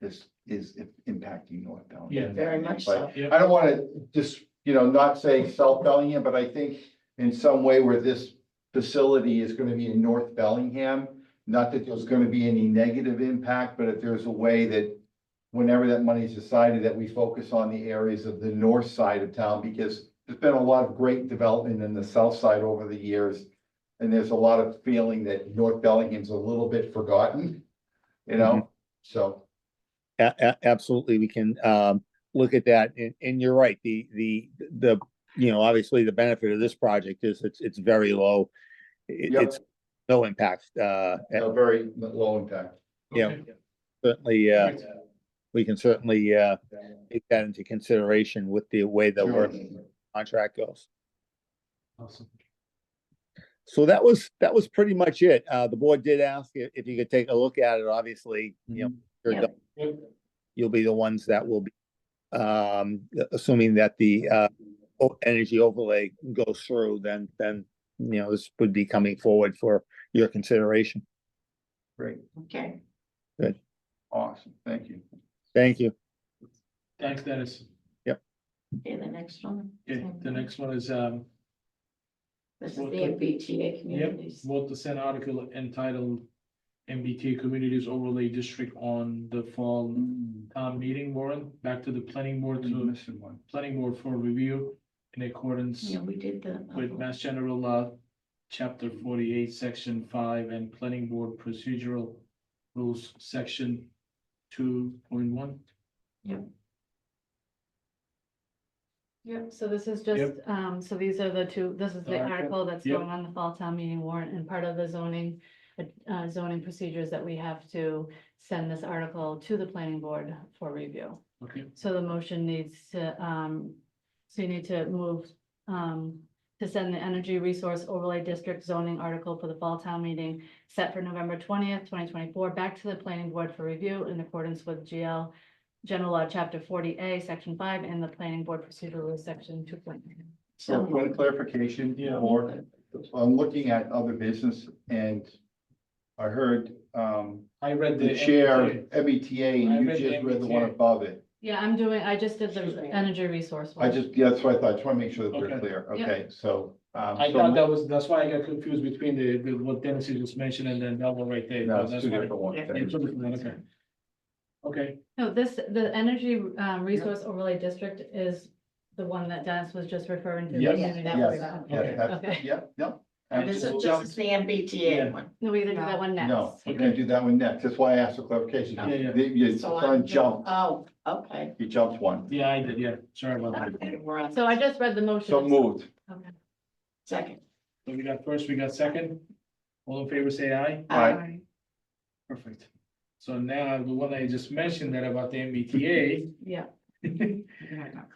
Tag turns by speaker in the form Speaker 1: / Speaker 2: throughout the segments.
Speaker 1: this is i- impacting North Bellingham.
Speaker 2: Yeah.
Speaker 3: Very much
Speaker 1: But
Speaker 3: so.
Speaker 2: Yep.
Speaker 1: I don't wanna just, you know, not say South Bellingham, but I think in some way where this facility is gonna be in North Bellingham. Not that there's gonna be any negative impact, but if there's a way that whenever that money's decided, that we focus on the areas of the north side of town, because there's been a lot of great development in the south side over the years. And there's a lot of feeling that North Bellingham's a little bit forgotten, you know,
Speaker 3: Mm-hmm.
Speaker 1: so.
Speaker 4: A- a- absolutely, we can, um, look at that, and, and you're right, the, the, the, you know, obviously the benefit of this project is it's, it's very low. It-
Speaker 1: Yep.
Speaker 4: it's no impact, uh,
Speaker 1: A very low impact.
Speaker 4: Yeah.
Speaker 2: Okay.
Speaker 4: certainly, uh,
Speaker 2: Great.
Speaker 4: we can certainly, uh, take that into consideration with the way the work contract goes.
Speaker 2: Awesome.
Speaker 4: So that was, that was pretty much it. Uh, the board did ask i- if you could take a look at it, obviously, you
Speaker 1: Mm-hmm.
Speaker 4: know, you're
Speaker 3: Yeah.
Speaker 4: the-
Speaker 2: Yep.
Speaker 4: you'll be the ones that will be, um, assuming that the, uh, o- energy overlay goes through, then, then, you know, this would be coming forward for your consideration.
Speaker 1: Great,
Speaker 3: Okay.
Speaker 1: awesome, thank you.
Speaker 4: Thank you.
Speaker 2: Thanks, Dennis.
Speaker 3: Okay, the next one.
Speaker 2: Okay, the next one is, um,
Speaker 3: This is the MBTA communities.
Speaker 2: vote to send article entitled MBTA Communities Overlay District on the fall town meeting warrant, back to the planning board
Speaker 1: I'm
Speaker 2: to,
Speaker 1: missing one.
Speaker 2: planning board for review in accordance
Speaker 3: Yeah, we did the. uh,
Speaker 2: with Mass General Law, Chapter forty-eight, Section five, and Planning Board Procedural Rules, Section two point one.
Speaker 5: Yep, so this is just, um, so these are the two, this is the
Speaker 2: Alright, yep,
Speaker 5: article that's
Speaker 2: yep.
Speaker 5: going on the fall town meeting warrant and part of the zoning. Uh, zoning procedures that we have to send this article to the planning board for review.
Speaker 2: Okay,
Speaker 5: So the motion needs to, um, so you need to move, um, to send the Energy Resource Overlay District zoning article for the fall town meeting set for November twentieth, twenty twenty-four, back to the planning board for review in accordance with GL General Law, Chapter forty A, Section five, and the Planning Board Procedural Rules, Section two point nine.
Speaker 1: So point of clarification,
Speaker 2: Yeah.
Speaker 1: or I'm looking at other business and I heard um
Speaker 2: I read the.
Speaker 1: the chair,
Speaker 2: MBTA.
Speaker 1: MBTA,
Speaker 2: I
Speaker 1: and you
Speaker 2: read
Speaker 1: just read the one
Speaker 2: MBTA.
Speaker 1: above it.
Speaker 5: Yeah, I'm doing, I just did
Speaker 3: Excuse
Speaker 5: the
Speaker 3: me.
Speaker 5: Energy Resource.
Speaker 1: I
Speaker 5: one.
Speaker 1: just, yeah, that's what I thought, just want to make sure that we're
Speaker 2: Okay.
Speaker 1: clear,
Speaker 5: Yeah.
Speaker 1: okay, so. um,
Speaker 2: I
Speaker 1: so-
Speaker 2: thought that was, that's why I got confused between the, the, what Dennis had just mentioned and then that one right there.
Speaker 1: No, it's
Speaker 2: That's
Speaker 1: two
Speaker 2: why-
Speaker 1: different ones.
Speaker 2: Yeah, it's two different ones, okay. Okay,
Speaker 5: No, this, the energy uh, resource overlay district is the one that Dennis was just referring to. the
Speaker 1: Yes,
Speaker 5: community
Speaker 3: that
Speaker 1: yes,
Speaker 5: overlay.
Speaker 1: Yeah,
Speaker 2: Okay.
Speaker 1: that's,
Speaker 5: Okay.
Speaker 1: yeah, no.
Speaker 2: And
Speaker 3: This
Speaker 1: absolutely.
Speaker 3: is just the MBTA
Speaker 2: Yeah.
Speaker 3: one.
Speaker 5: No, we either do that one next.
Speaker 1: No, we're gonna do that one next, that's why I asked for clarification.
Speaker 2: Yeah, yeah.
Speaker 1: You- You,
Speaker 3: So
Speaker 1: son
Speaker 3: I'm-
Speaker 1: jumped,
Speaker 3: Oh, okay.
Speaker 1: you jumped one,
Speaker 2: yeah, I did, yeah, sorry about that.
Speaker 3: Okay, we're on
Speaker 5: So I just read the motion.
Speaker 1: so moved.
Speaker 5: Okay.
Speaker 3: second.
Speaker 2: So we got first, we got second. All in favor, say aye.
Speaker 1: Aye.
Speaker 5: Alright.
Speaker 2: Perfect. So now the one I just mentioned that about the MBTA,
Speaker 5: Yeah.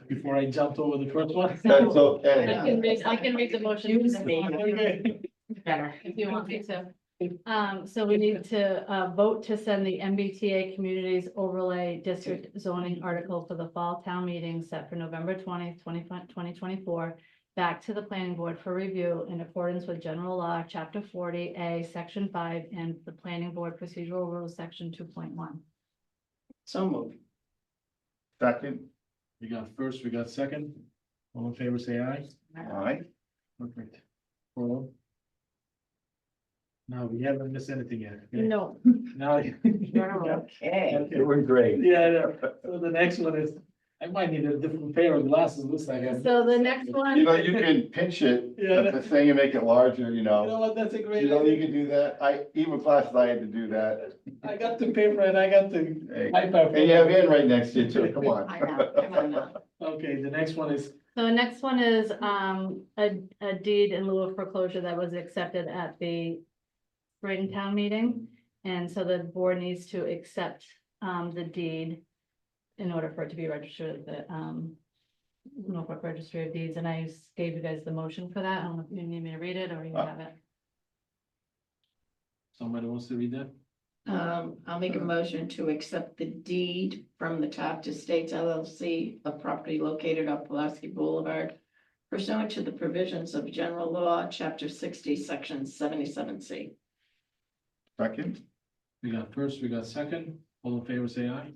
Speaker 2: before I jumped over the first one.
Speaker 1: That's
Speaker 5: I
Speaker 1: okay.
Speaker 5: can read, I can read the motion.
Speaker 3: Excuse me. Better.
Speaker 5: If you want me to. Um, so we need to, uh, vote to send the MBTA Communities Overlay District zoning article for the fall town meeting set for November twentieth, twenty, twenty twenty-four back to the planning board for review in accordance with general law, chapter forty A, section five, and the planning board procedural rules, section two point one.
Speaker 3: So moved.
Speaker 1: Second,
Speaker 2: We got first, we got second. All in favor, say aye.
Speaker 1: all right,
Speaker 2: Perfect. Four. oh. Now, we haven't missed anything yet. okay?
Speaker 5: No,
Speaker 2: Now.
Speaker 3: Okay.
Speaker 2: Okay.
Speaker 1: you were great.
Speaker 2: Yeah, I know. so the next one is, I might need a different pair of glasses, looks like. I'm-
Speaker 5: so the next one.
Speaker 1: You know, you can pinch it,
Speaker 2: Yeah.
Speaker 1: at the thing and make it larger, you
Speaker 2: You know
Speaker 1: know,
Speaker 2: what, that's a great
Speaker 1: you know, you
Speaker 2: idea.
Speaker 1: can do that, I, even classes I had to do that.
Speaker 2: I got the paper and I got the
Speaker 1: Hey,
Speaker 2: iPad.
Speaker 1: And you have Ann right next to you too, come on.
Speaker 3: I know, come on now.
Speaker 2: Okay, the next one is
Speaker 5: So the next one is, um, a, a deed in lieu of foreclosure that was accepted at the spring town meeting. And so the board needs to accept, um, the deed in order for it to be registered, at the, um, Norfolk Registry of Deeds, and I gave you guys the motion for that. I don't know if you need me to read it or you have it.
Speaker 2: Somebody wants to read that?
Speaker 3: Um, I'll make a motion to accept the deed from the Taft Estates LLC, a property located on Pulaski Boulevard. Pursuant to the provisions of general law, chapter sixty, section seventy-seven C.
Speaker 1: Second?
Speaker 2: We got first, we got second. All in favor, say aye.